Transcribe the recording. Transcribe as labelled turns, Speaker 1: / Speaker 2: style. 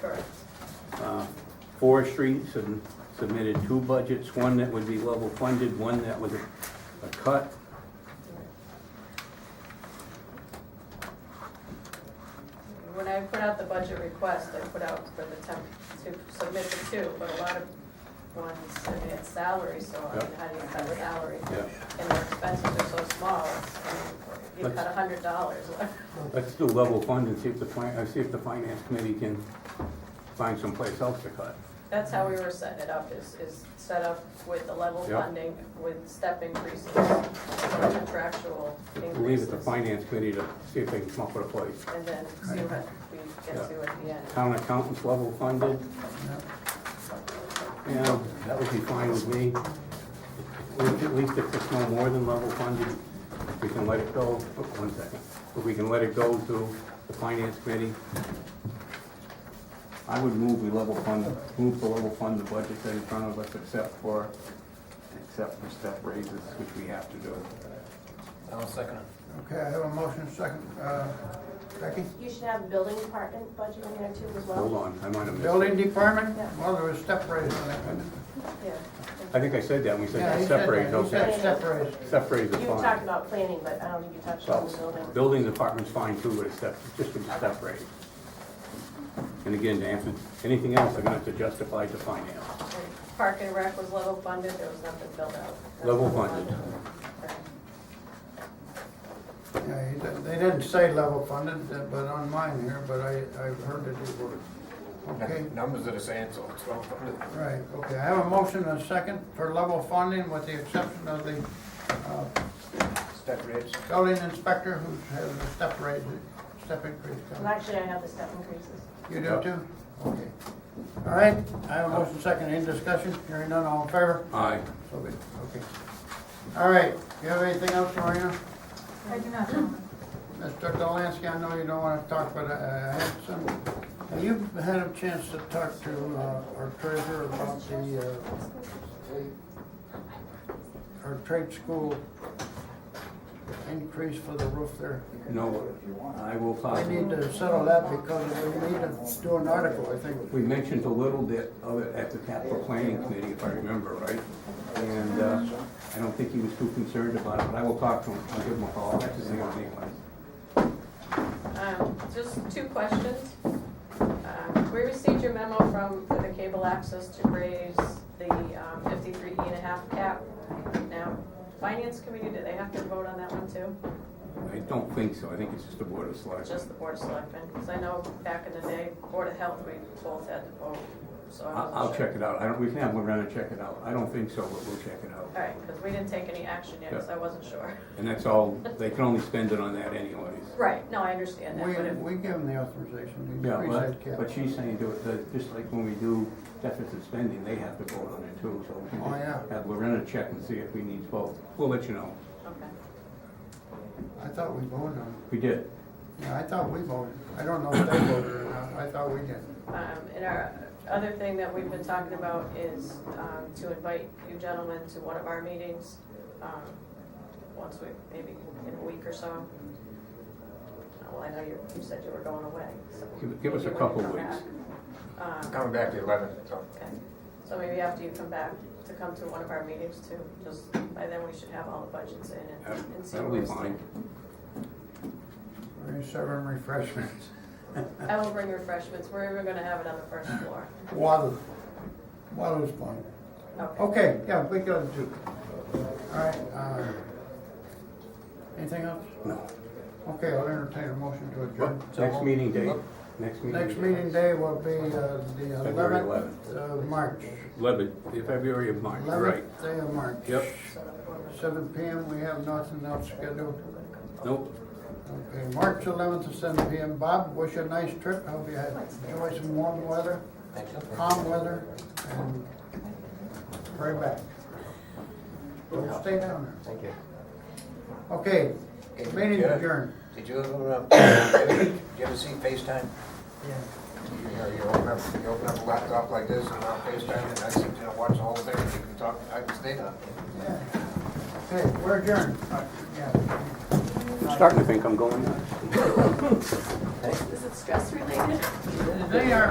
Speaker 1: Correct.
Speaker 2: Uh, Forestry sub- submitted two budgets, one that would be level funded, one that was a a cut.
Speaker 1: When I put out the budget request, I put out for the temp, to submit the two, but a lot of ones submit salary, so I mean,
Speaker 2: Yeah.
Speaker 1: how do you cut salary?
Speaker 2: Yeah.
Speaker 1: And their expenses are so small, I mean, you cut
Speaker 2: Let's-
Speaker 1: a hundred dollars.
Speaker 2: Let's do level fund and see if the, fin- uh, see if the finance committee can find someplace else to cut.
Speaker 1: That's how we were setting it up, is, is set up with the level
Speaker 2: Yeah.
Speaker 1: funding, with step increases, contractual
Speaker 2: Leave it
Speaker 1: increases.
Speaker 2: to finance committee to see if they can come up with a place.
Speaker 1: And then see what we get to at the end.
Speaker 2: Town accountants level funded. Yeah, that would be fine with me. At least if it's no more than level funded, we can let it go, oh, one second, if we can let it go to the finance committee. I would move we level fund, move to level fund the budget that's in front of us except for, except for step raises, which we have to do.
Speaker 3: I'll second it.
Speaker 4: Okay, I have a motion, second, uh, Becky?
Speaker 5: You should have building department budget in there too as well.
Speaker 2: Hold on, I might have missed.
Speaker 4: Building department, well, there was step raise on that one.
Speaker 1: Yeah.
Speaker 2: I think I said that, and we
Speaker 4: Yeah,
Speaker 2: said
Speaker 4: he said
Speaker 2: separate,
Speaker 4: that, he said
Speaker 2: okay.
Speaker 4: step raise.
Speaker 2: Separate the
Speaker 5: You talked
Speaker 2: fund.
Speaker 5: about planning, but I don't think you touched on the building.
Speaker 2: So, building department's fine too, but it's step, just with the step raise. And again, to answer, anything else, I'm gonna have to justify to finance.
Speaker 1: And Park and Rec was level funded, there was nothing filled out. That's
Speaker 2: Level funded.
Speaker 1: Okay.
Speaker 4: Yeah, he did- They didn't say level funded, uh, but on mine here, but I, I've heard it before. Okay,
Speaker 3: Numbers are the same, so it's well funded.
Speaker 4: right, okay, I have a motion and a second for level funding with the exception of the uh,
Speaker 3: Step rates.
Speaker 4: building inspector who has a step raise, step increase.
Speaker 5: Well, actually, I have the step increases.
Speaker 4: You do too? Okay. All right, I have a motion, second, any discussion? Hearing none, all in favor?
Speaker 2: Aye.
Speaker 4: So be it. okay. All right, you have anything else, Marina?
Speaker 6: I do not, gentlemen.
Speaker 4: Mr. Delansky, I know you don't wanna talk, but I, I had some, have you had a chance to talk to, uh, our treasurer about the, uh, our trade school increase for the roof there?
Speaker 2: No, I will
Speaker 4: I need
Speaker 2: possibly,
Speaker 4: to settle that because we need to do an article, I think.
Speaker 2: we mentioned a little bit of it at the capital planning committee, if I remember right. And, uh, I don't think he was too concerned about it, but I will talk to him, I'll give him a call, that's his name anyway.
Speaker 1: Um, Just two questions. Um, We received your memo from, for the cable access to raise the um, 53E and a half cap. Now, Finance Committee, do they have to vote on that one too?
Speaker 2: I don't think so, I think it's just a board of selectmen.
Speaker 1: Just the Board of Selectmen? Because I know back in the day, Board of Health, we both had to vote, so I
Speaker 2: I'll,
Speaker 1: wasn't
Speaker 2: I'll
Speaker 1: sure.
Speaker 2: check it out, I don't, we can have Lorena check it out, I don't think so, but we'll check it out.
Speaker 1: All right, because we didn't take any action yet, because I wasn't sure.
Speaker 2: And that's all, they can only spend it on that anyways.
Speaker 1: Right, no, I understand that,
Speaker 4: We,
Speaker 1: but if
Speaker 4: we give them the authorization to
Speaker 2: Yeah,
Speaker 4: increase that
Speaker 2: but, but
Speaker 4: cap.
Speaker 2: she's saying do it, the- just like when we do deficit spending, they have to vote on it too, so we can
Speaker 4: Oh,
Speaker 2: just
Speaker 4: yeah.
Speaker 2: have Lorena check and see if we need both. We'll let you know.
Speaker 1: Okay.
Speaker 4: I thought we voted on
Speaker 2: We did.
Speaker 4: it. Yeah, I thought we voted. I don't know if they voted or not. I thought we did.
Speaker 1: Um, and our other thing that we've been talking about is, um, to invite you gentlemen to one of our meetings, um, once we, maybe in a week or so. Uh, Well, I know you, you said you were going away, so.
Speaker 2: Give- give us a
Speaker 1: maybe when you
Speaker 2: couple
Speaker 1: come
Speaker 2: weeks.
Speaker 1: back. Um,
Speaker 3: Coming back to eleven, so.
Speaker 1: okay. So maybe after you come back, to come to one of our meetings too, just, by then we should have all the budgets in and-
Speaker 2: That-
Speaker 1: and see.
Speaker 2: That'll
Speaker 1: where
Speaker 2: be
Speaker 1: we
Speaker 2: fine.
Speaker 1: stand.
Speaker 4: We're serving refreshments.
Speaker 1: I will bring refreshments, we're even gonna have it on the first floor.
Speaker 4: Water, water's fine. Okay, yeah, we got it too. All right, uh, anything else?
Speaker 2: No.
Speaker 4: Okay, I'll entertain a motion to adjourn.
Speaker 2: Next meeting date, next meeting.
Speaker 4: Next meeting day will be, uh, the
Speaker 2: February
Speaker 4: eleventh of March.
Speaker 2: Eleven, February of March, right.
Speaker 4: Eleventh day of March.
Speaker 2: Yep,
Speaker 4: Seven P M, we have nothing else scheduled.
Speaker 2: nope.
Speaker 4: Okay, March eleventh at seven P M. Bob, wish you a nice trip. Hope you had- enjoy some warm weather, calm weather, and right back. Don't stay down there.
Speaker 3: Thank you.
Speaker 4: Okay, meeting
Speaker 3: Yeah.
Speaker 4: adjourned.
Speaker 3: Did you ever, um, did you ever see FaceTime? You know, you open up, you open up a laptop like this and on FaceTime, and I sit there and watch the whole thing, and you can talk, I can stay on.
Speaker 4: Yeah. Okay, we're adjourned. Yeah.
Speaker 2: Starting to think I'm going nuts.
Speaker 1: Is it stress related?
Speaker 4: They are